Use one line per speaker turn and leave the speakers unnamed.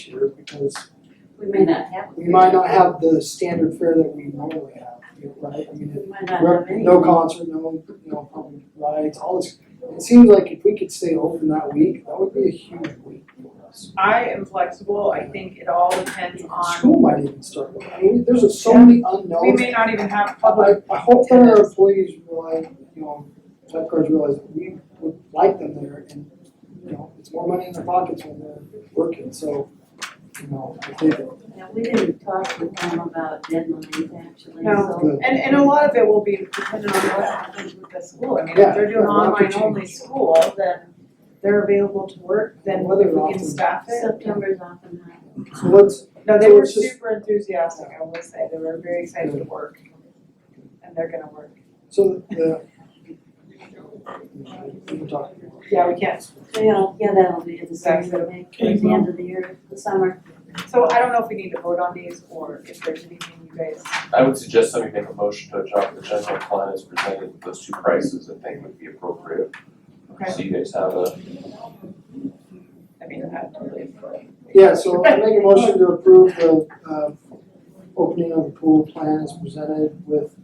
year because
We may not have.
we might not have the standard fare that we normally have, you know, right? I mean,
We might not have
rep-
any.
no concert, no, no public rides, all this. It seems like if we could stay open that week, that would be a huge week for us.
I am flexible, I think it all depends on,
School might even start, I mean, there's just so many
we
unknowns.
may not even have public,
I, I hope that our employees realize, you know, lifeguards realize that we would like them there and, you know, it's more money in their pockets when they're working, so, you know, I think
Yeah, we didn't talk with them about deadlines actually,
No.
so.
and, and a lot of it will be dependent on what happens with the school. I mean,
Yeah,
if they're doing
yeah, we'll have to
online only
change.
school, then they're available to work, then
Whether
whether we
often-
can staff it.
September's often high.
So let's,
No, they
So
were
it's just-
super enthusiastic, I will say, they were very excited to work. And they're gonna work.
so the. We can talk.
Yeah, we can.
So, you know, yeah, that'll be in the summer,
Exactly.
maybe towards the end of the year, the summer.
So I don't know if we need to vote on these or if there's anything you guys,
I would suggest that we make a motion to adopt the general plan as presented, with those two prices I think would be appropriate.
okay,
So you guys have a,
I mean, that really.
Yeah, so I make a motion to approve the, uh, opening of the pool plan as presented with